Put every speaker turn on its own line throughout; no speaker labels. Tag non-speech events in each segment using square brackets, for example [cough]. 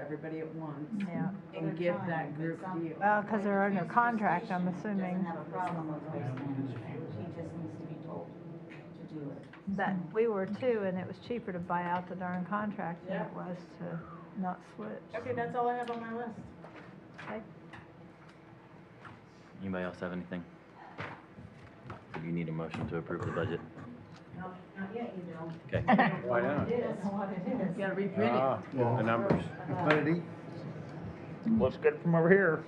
everybody at once
yeah.
and give that group deal.
Well, because they're under contract, I'm
Doesn't
assuming
have a problem with waste management, she just needs to be told to do it.
that we were too, and it was cheaper to buy out the darn contract than it was to not switch.
Okay, that's all I have on my list.
Anybody else have anything? You need a motion to approve the budget.
No, not yet, you don't.
Okay.
Why not?
It is what it is.
You gotta reprint it.
Ah, The numbers.
About-
Looks good from over here.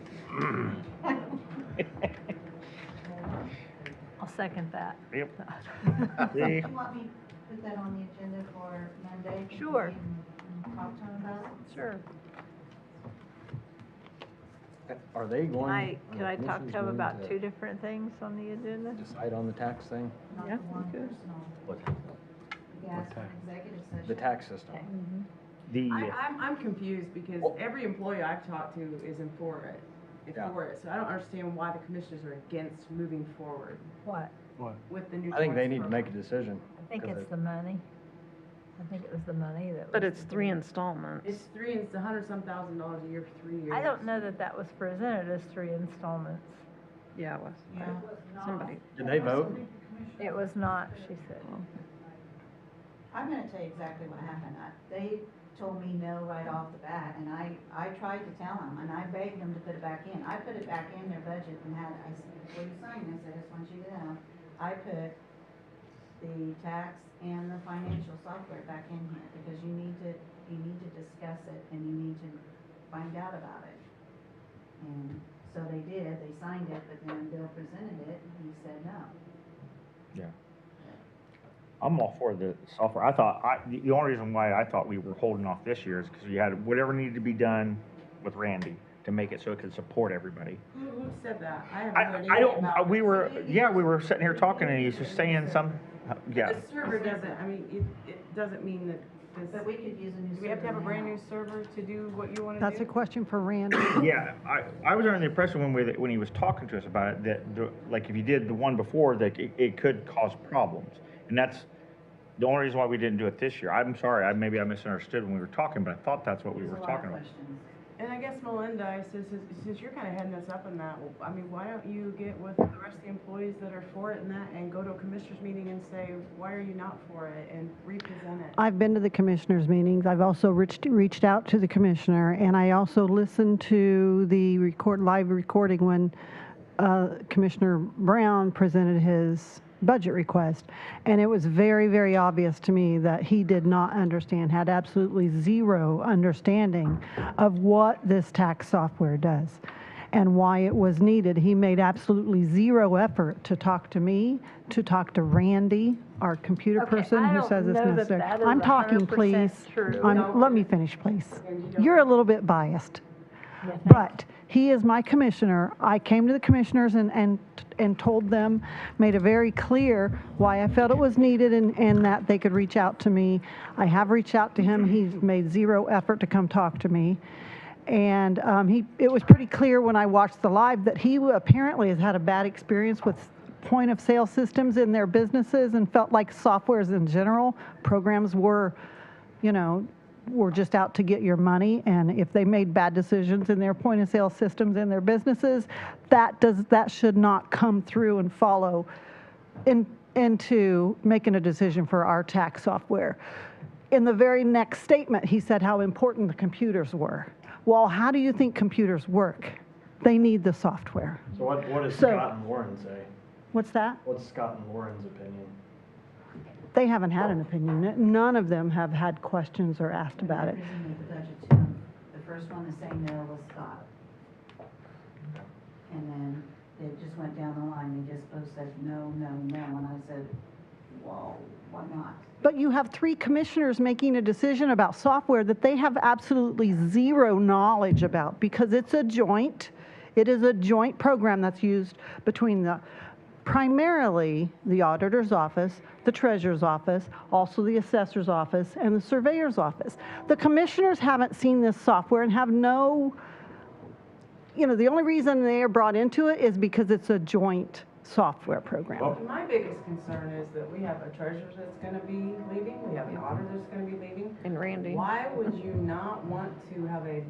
I'll second that. [laughs]
Yep.
You
See?
want me to put that on the agenda for Monday?
Sure.
And and talk to him about it?
Sure.
Are they
Can
going?
I,
are
can
the
I talk to
commissioners
him
going
about two different things on the agenda?
Decide on the tax thing,
Not
Yeah,
the one
okay.
personal.
What?
You guys, for an executive session.
the tax system.
The,
I,
Mm-hmm.
I'm, I'm confused because every employee I've talked to isn't for it, is
Yeah.
for it, so I don't understand why the commissioners are against moving forward
What?
with the new.
uh, I think they
tax
need to
program.
make a decision.
I think
'cause
it's
it-
the money. I think it was the money that was.
But it's three installments.
It's three, it's a hundred some thousand dollars a year for three years.
I don't know that that was presented as three installments.
Yeah, it was.
Yeah.
Somebody,
Did they vote?
It was not, she said.
I'm gonna tell you exactly what happened. I- They told me no right off the bat, and I, I tried to tell them, and I begged them to put it back in. I put it back in their budget and had, I said, before you sign this, I just want you to know, I put the tax and the financial software back in here, because you need to, you need to discuss it, and you need to find out about it. And so they did, they signed it, but then Bill presented it, and he said no.
I'm all for the software. I thought, I, the- the only reason why I thought we were holding off this year is because we had whatever needed to be done with Randy to make it so it could support everybody.
Who, who said that? I haven't heard
I, I
anything
don't, uh,
about.
we
it.
were, yeah, we were sitting here talking and he's just saying some, uh, yeah.
The server doesn't, I mean, it, it doesn't mean that this.
But we could use a new.
Do we have to have a
server
brand
now.
new server to do what you wanna do?
That's a question for Randy.
Yeah, I, I was under the impression when we, when he was talking to us about it, that, the- like, if you did the one before, that it, it could cause problems. And that's the only reason why we didn't do it this year. I'm sorry, I, maybe I misunderstood when we were talking, but I thought that's what we
There's
were
a lot of
talking about.
questions.
And I guess Melinda, since, since you're kinda heading us up in that, well, I mean, why don't you get with the rest of the employees that are for it and that and go to a commissioners meeting and say, why are you not for it and represent it?
I've been to the commissioners' meetings. I've also reached, reached out to the commissioner, and I also listened to the record, live recording when uh, Commissioner Brown presented his budget request. And it was very, very obvious to me that he did not understand, had absolutely zero understanding of what this tax software does and why it was needed. He made absolutely zero effort to talk to me, to talk to Randy, our computer
Okay,
person
I
who
don't
says it's
know that
necessary.
that is
I'm talking,
100%
please.
true.
I'm- Let me finish, please.
And you don't-
You're a little bit biased. But he is my commissioner. I came to the commissioners and, and, and told them, made it very clear why I felt it was needed and, and that they could reach out to me. I have reached out to him. He's made zero effort to come talk to me. And um, he, it was pretty clear when I watched the live that he apparently has had a bad experience with point of sale systems in their businesses and felt like softwares in general, programs were, you know, were just out to get your money, and if they made bad decisions in their point of sale systems in their businesses, that does that should not come through and follow in, into making a decision for our tax software. In the very next statement, he said how important the computers were. Well, how do you think computers work? They need the software.
So what, what does
So-
Scott and Lauren say?
What's that?
What's Scott and Lauren's opinion?
They haven't had an opinion. N- None of them have had questions or asked about it.
Presented the budget to them. The first one to say no was Scott. And then they just went down the line, they just both said no, no, no, and I said, whoa, why not?
But you have three commissioners making a decision about software that they have absolutely zero knowledge about because it's a joint, it is a joint program that's used between the, primarily the auditor's office, the treasurer's office, also the assessor's office, and the surveyor's office. The commissioners haven't seen this software and have no, you know, the only reason they are brought into it is because it's a joint software program.
My biggest concern is that we have a treasurer that's gonna be leaving, we have an auditor that's gonna be leaving.
and Randy.
Why would you not want to have a